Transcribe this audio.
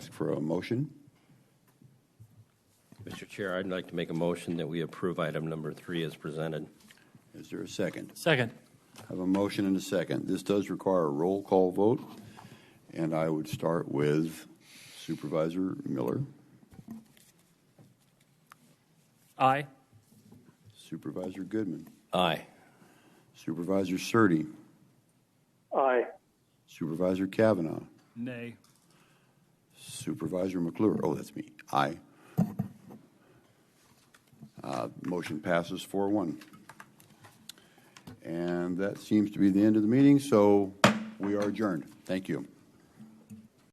for a motion. Mr. Chair, I'd like to make a motion that we approve item number three as presented. Is there a second? Second. I have a motion and a second. This does require a roll call vote, and I would start with Supervisor Miller, Aye. Supervisor Goodman, Aye. Supervisor Surtee, Aye. Supervisor Kavanaugh, Nay. Supervisor McClure. Oh, that's me. Aye. Uh, Motion passes 4-1. And that seems to be the end of the meeting, so we are adjourned. Thank you.